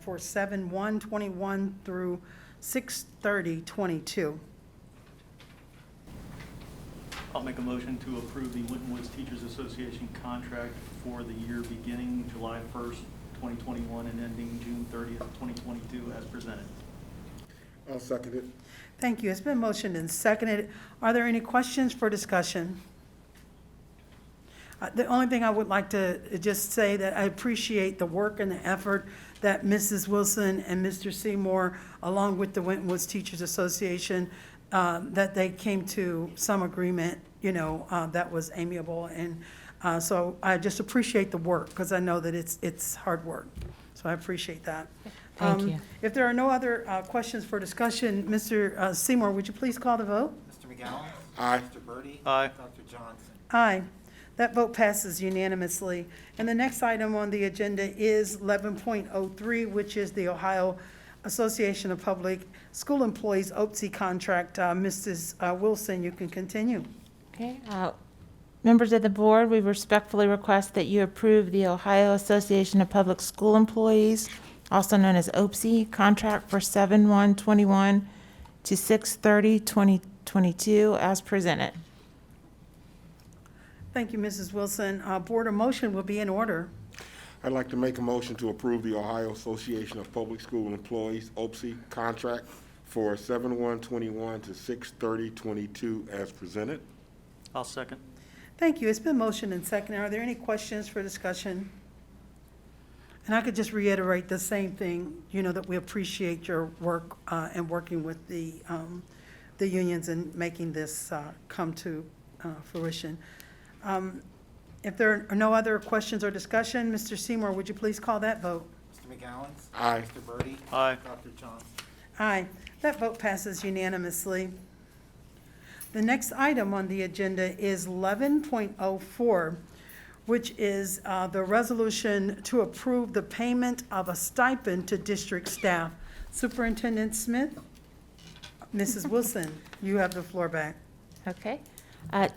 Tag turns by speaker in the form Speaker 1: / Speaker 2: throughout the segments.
Speaker 1: for seven one twenty-one through six thirty twenty-two.
Speaker 2: I'll make a motion to approve the Winton Woods Teachers Association contract for the year beginning July 1st, 2021 and ending June 30th, 2022 as presented.
Speaker 3: I'll second it.
Speaker 1: Thank you. It's been motioned and seconded. Are there any questions for discussion? Uh, The only thing I would like to just say that I appreciate the work and the effort that Mrs. Wilson and Mr. Seymour, along with the Winton Woods Teachers Association, um, that they came to some agreement, you know, uh, that was amiable. And uh, so I just appreciate the work because I know that it's, it's hard work. So I appreciate that.
Speaker 4: Thank
Speaker 1: Um,
Speaker 4: you.
Speaker 1: If there are no other uh, questions for discussion, Mr. uh, Seymour, would you please call the vote?
Speaker 5: Mr. McGowan?
Speaker 3: Aye.
Speaker 5: Mr. Birdy?
Speaker 2: Aye.
Speaker 5: Dr. Johnson?
Speaker 1: Aye. That vote passes unanimously. And the next item on the agenda is 11.03, which is the Ohio Association of Public School Employees OPSI contract. Uh, Mrs. uh, Wilson, you can continue.
Speaker 4: Okay, uh, members of the board, we respectfully request that you approve the Ohio Association of Public School Employees, also known as OPSE, E, contract for 7/1/21 to 6/30/2022 as presented.
Speaker 1: Thank you, Mrs. Wilson. Uh, Board of motion will be in order.
Speaker 3: I'd like to make a motion to approve the Ohio Association of Public School Employees, OPSE, E, contract for 7/1/21 to 6/30/22 as presented.
Speaker 2: I'll second.
Speaker 1: Thank you. It's been motioned and seconded. Are there any questions for discussion? And I could just reiterate the same thing, you know, that we appreciate your work uh, and working with the, um, the unions and making this uh, come to uh, fruition. Um, If there are no other questions or discussion, Mr. Seymour, would you please call that vote?
Speaker 5: Mr. McGowan?
Speaker 3: Aye.
Speaker 5: Mr. Birdy?
Speaker 2: Aye.
Speaker 5: Dr. Johnson?
Speaker 1: Aye. That vote passes unanimously. The next item on the agenda is 11.04, which is uh, the resolution to approve the payment of a stipend to district staff. Superintendent Smith, Mrs. Wilson, you have the floor back.
Speaker 4: Okay. Uh,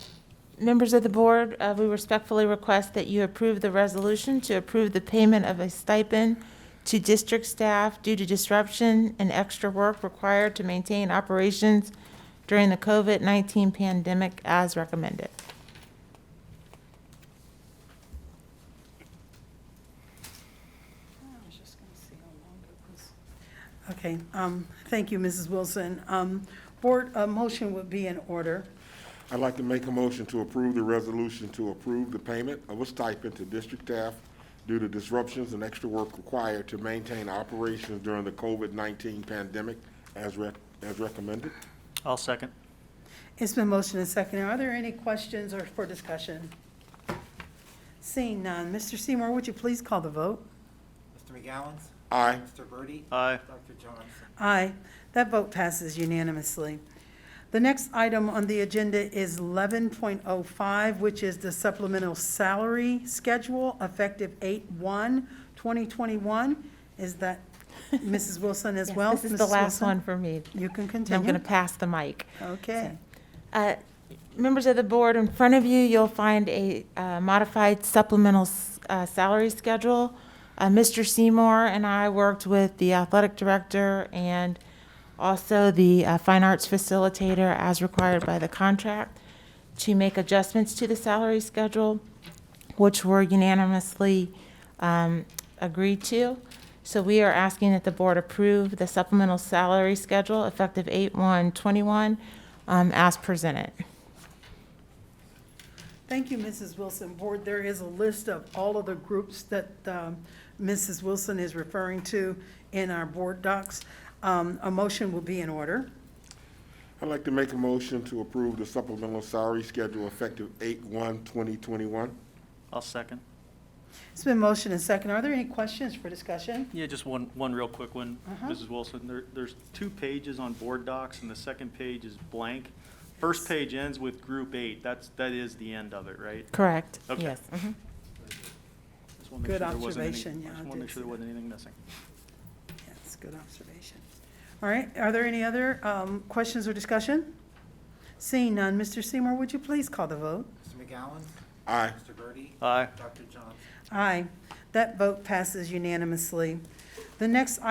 Speaker 4: Members of the board, uh, we respectfully request that you approve the resolution to approve the payment of a stipend to district staff due to disruption and extra work required to maintain operations during the COVID-19 pandemic as recommended.
Speaker 1: Okay, um, thank you, Mrs. Wilson. Um, Board, a motion would be in order.
Speaker 3: I'd like to make a motion to approve the resolution to approve the payment of a stipend to district staff due to disruptions and extra work required to maintain operations during the COVID-19 pandemic as rec- as recommended.
Speaker 2: I'll second.
Speaker 1: It's been motioned and seconded. Are there any questions or for discussion? Seeing none, Mr. Seymour, would you please call the vote?
Speaker 5: Mr. McGowan?
Speaker 3: Aye.
Speaker 5: Mr. Birdy?
Speaker 2: Aye.
Speaker 5: Dr. Johnson?
Speaker 1: Aye. That vote passes unanimously. The next item on the agenda is 11.05, which is the supplemental salary schedule effective 8/1/2021. Is that Mrs. Wilson as
Speaker 4: Yes,
Speaker 1: well?
Speaker 4: This is the
Speaker 1: Mrs.
Speaker 4: last
Speaker 1: Wilson?
Speaker 4: one for me.
Speaker 1: You can continue.
Speaker 4: I'm going to pass the mic.
Speaker 1: Okay.
Speaker 4: Uh, Members of the board, in front of you, you'll find a uh, modified supplemental s- uh, salary schedule. Uh, Mr. Seymour and I worked with the athletic director and also the uh, fine arts facilitator as required by the contract to make adjustments to the salary schedule, which were unanimously um, agreed to. So we are asking that the board approve the supplemental salary schedule effective 8/1/21 um, as presented.
Speaker 1: Thank you, Mrs. Wilson. Board, there is a list of all of the groups that um, Mrs. Wilson is referring to in our board docs. Um, A motion will be in order.
Speaker 3: I'd like to make a motion to approve the supplemental salary schedule effective 8/1/2021.
Speaker 2: I'll second.
Speaker 1: It's been motion and second. Are there any questions for discussion?
Speaker 2: Yeah, just one, one real quick one,
Speaker 1: Uh-huh.
Speaker 2: Mrs. Wilson. There, there's two pages on board docs and the second page is blank. First page ends with group eight. That's, that is the end of it, right?
Speaker 4: Correct,
Speaker 2: Okay.
Speaker 4: yes. mhm.
Speaker 2: Just wanna make
Speaker 1: Good
Speaker 2: sure there wasn't any-
Speaker 1: observation, yeah,
Speaker 2: I
Speaker 1: I
Speaker 2: just want
Speaker 1: did
Speaker 2: to make sure
Speaker 1: see
Speaker 2: there wasn't anything missing.
Speaker 1: Yes, good observation. All right, are there any other um, questions or discussion? Seeing none, Mr. Seymour, would you please call the vote?
Speaker 5: Mr. McGowan?
Speaker 3: Aye.
Speaker 5: Mr. Birdy?
Speaker 2: Aye.
Speaker 5: Dr. Johnson?
Speaker 1: Aye. That vote passes unanimously. The next